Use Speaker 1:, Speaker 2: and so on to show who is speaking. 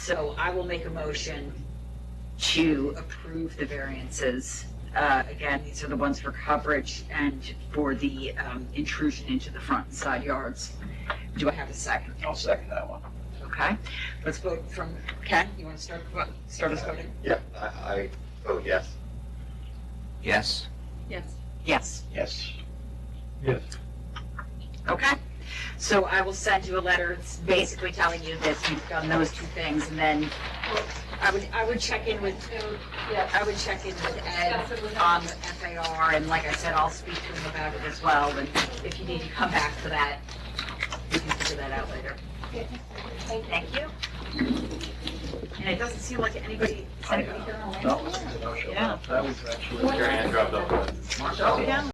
Speaker 1: So I will make a motion to approve the variances. Uh, Again, these are the ones for coverage and for the um, intrusion into the front and side yards. Do I have a second?
Speaker 2: I'll second that one.
Speaker 1: Okay, let's vote from, Ken, you want to start, start us voting?
Speaker 3: Yeah, I, I, oh, yes.
Speaker 2: Yes.
Speaker 4: Yes.
Speaker 1: Yes,
Speaker 2: Yes.
Speaker 5: Yes.
Speaker 1: okay. So I will send you a letter, it's basically telling you that you've done those two things, and then I would, I would check in with
Speaker 4: Yes.
Speaker 1: I would check in with Ed on the FAR, and like I said, I'll speak to him about it as well, and if you need to come back to that, we can figure that out later. Thank you. And it doesn't seem like anybody, is anybody here online?
Speaker 2: No, no, sure.
Speaker 1: Yeah.
Speaker 2: That was actually.
Speaker 3: Your hand dropped up.
Speaker 1: Go down.